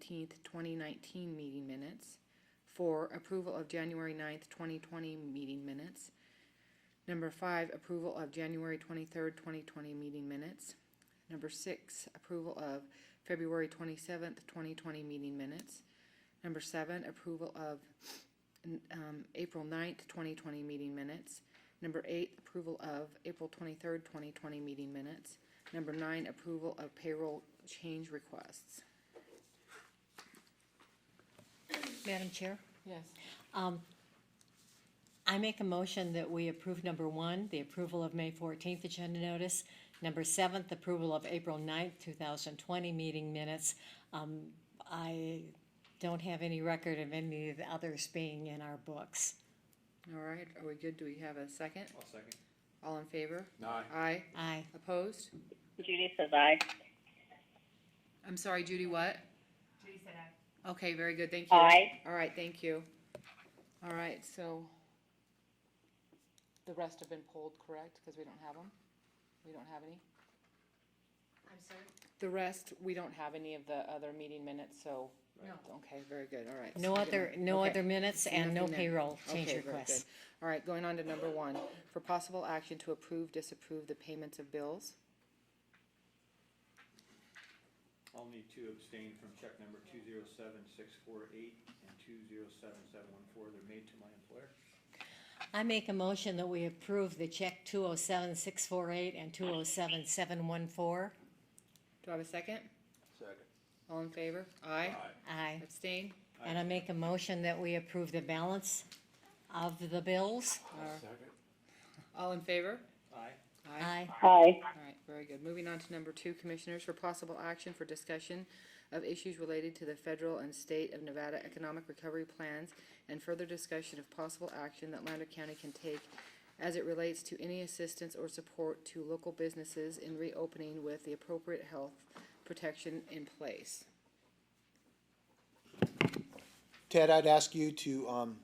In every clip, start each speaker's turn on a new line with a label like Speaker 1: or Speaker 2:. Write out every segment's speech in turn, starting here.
Speaker 1: seventeenth, twenty nineteen meeting minutes. Four, approval of January 9th, twenty twenty meeting minutes. Number five, approval of January twenty-third, twenty twenty meeting minutes. Number six, approval of February twenty-seventh, twenty twenty meeting minutes. Number seven, approval of, um, April 9th, twenty twenty meeting minutes. Number eight, approval of April twenty-third, twenty twenty meeting minutes. Number nine, approval of payroll change requests.
Speaker 2: Madam Chair,
Speaker 1: Yes.
Speaker 2: I make a motion that we approve number one, the approval of May fourteenth agenda notice. Number seven, the approval of April 9th, two thousand twenty meeting minutes. Um, I don't have any record of any of the others being in our books.
Speaker 1: All right, are we good? Do we have a second?
Speaker 3: I'll second.
Speaker 1: All in favor?
Speaker 3: Aye.
Speaker 1: Aye.
Speaker 2: Aye.
Speaker 1: Opposed?
Speaker 4: Judy says aye.
Speaker 1: I'm sorry, Judy, what? Okay, very good, thank you.
Speaker 4: Aye.
Speaker 1: All right, thank you. All right, so the rest have been pulled, correct? Because we don't have them? We don't have any?
Speaker 5: I'm sorry?
Speaker 1: The rest, we don't have any of the other meeting minutes, so.
Speaker 5: No.
Speaker 1: Okay, very good, all right.
Speaker 2: No
Speaker 1: So-
Speaker 2: other, no
Speaker 1: Okay.
Speaker 2: other minutes and no
Speaker 1: Nothing there.
Speaker 2: payroll
Speaker 1: Okay,
Speaker 2: change
Speaker 1: very good.
Speaker 2: requests.
Speaker 1: All right, going on to number one, for possible action to approve, disapprove the payments of bills.
Speaker 3: I'll need to abstain from check number two zero seven six four eight and two zero seven seven one four. They're made to my employer.
Speaker 2: I make a motion that we approve the check two oh seven six four eight and two oh seven seven one four.
Speaker 1: Do I have a second?
Speaker 3: Second.
Speaker 1: All in favor? Aye.
Speaker 2: Aye.
Speaker 1: Abstain?
Speaker 2: And I make a motion that we approve the balance of the bills.
Speaker 3: Second.
Speaker 1: All in favor?
Speaker 3: Aye.
Speaker 2: Aye.
Speaker 4: Aye.
Speaker 1: All right, very good. Moving on to number two, Commissioners, for possible action for discussion of issues related to the federal and state of Nevada economic recovery plans and further discussion of possible action that Lander County can take as it relates to any assistance or support to local businesses in reopening with the appropriate health protection in place.
Speaker 6: Ted, I'd ask you to, um,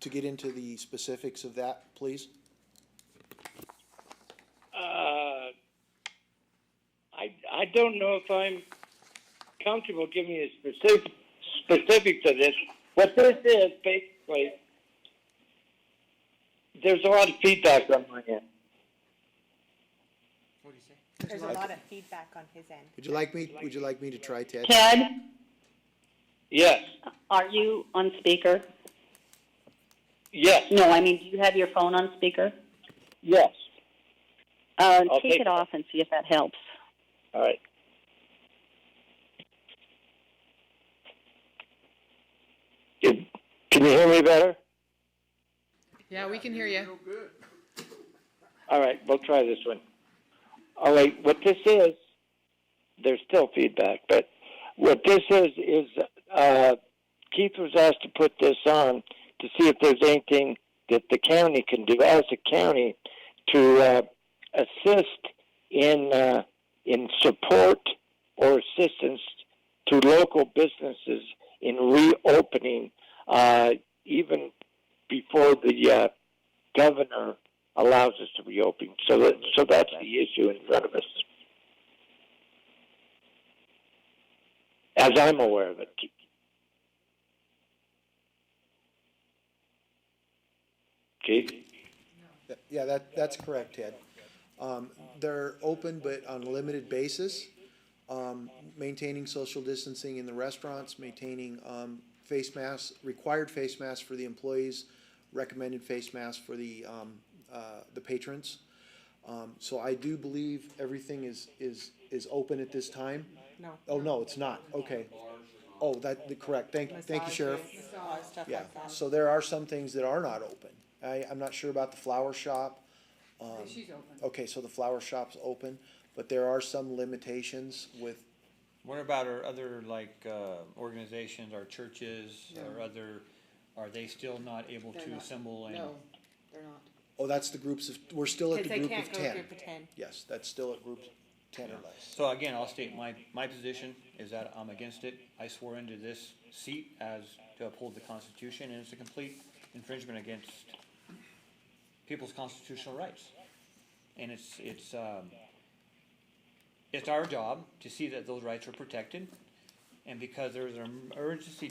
Speaker 6: to get into the specifics of that, please.
Speaker 7: Uh, I, I don't know if I'm comfortable giving you specific, specifics of this. What this is, basically, there's a lot of feedback on my end.
Speaker 3: What'd you say?
Speaker 5: There's a lot of feedback on his end.
Speaker 6: Would you like me, would you like me to try, Ted?
Speaker 4: Ted,
Speaker 7: Yes,
Speaker 4: are you on speaker?
Speaker 7: yes,
Speaker 4: No, I mean, do you have your phone on speaker?
Speaker 7: yes.
Speaker 4: Uh,
Speaker 7: I'll
Speaker 4: take it
Speaker 7: take it.
Speaker 4: off and see if that helps.
Speaker 7: All right. Can can you hear me better?
Speaker 1: Yeah, we can hear you.
Speaker 7: All right, we'll try this one. All right, what this is, there's still feedback, but what this is is uh, Keith was asked to put this on to see if there's anything that the county can do as a county to uh, assist in uh, in support or assistance to local businesses in reopening, uh, even before the uh, governor allows us to reopen. So that, so that's the issue in front of us, as I'm aware of it. Keith,
Speaker 6: Yeah, that, that's correct, Ted. Um, they're open but on a limited basis, um, maintaining social distancing in the restaurants, maintaining, um, face masks, required face masks for the employees, recommended face masks for the, um, uh, the patrons. Um, so I do believe everything is, is, is open at this time.
Speaker 5: No.
Speaker 6: Oh, no, it's not, okay. Oh, that, the- correct, thank, thank you, Sheriff.
Speaker 5: Massage, stuff
Speaker 6: Yeah,
Speaker 5: like that.
Speaker 6: so there are some things that are not open. I, I'm not sure about the flower shop. Um,
Speaker 1: She's open.
Speaker 6: okay, so the flower shop's open, but there are some limitations with,
Speaker 3: What about our other, like, uh, organizations, our churches, or other, are they still not able
Speaker 1: They're
Speaker 3: to
Speaker 1: not.
Speaker 3: assemble and?
Speaker 1: No, they're not.
Speaker 6: oh, that's the groups of, we're still at
Speaker 5: Because
Speaker 6: the
Speaker 5: they
Speaker 6: group
Speaker 5: can't
Speaker 6: of
Speaker 5: go to
Speaker 6: ten.
Speaker 5: group of ten.
Speaker 6: Yes, that's still at group ten or less.
Speaker 3: So again, I'll state my, my position is that I'm against it. I swore into this seat as to uphold the Constitution, and it's a complete infringement against people's constitutional rights. And it's, it's, um, it's our job to see that those rights are protected, And because there's an emergency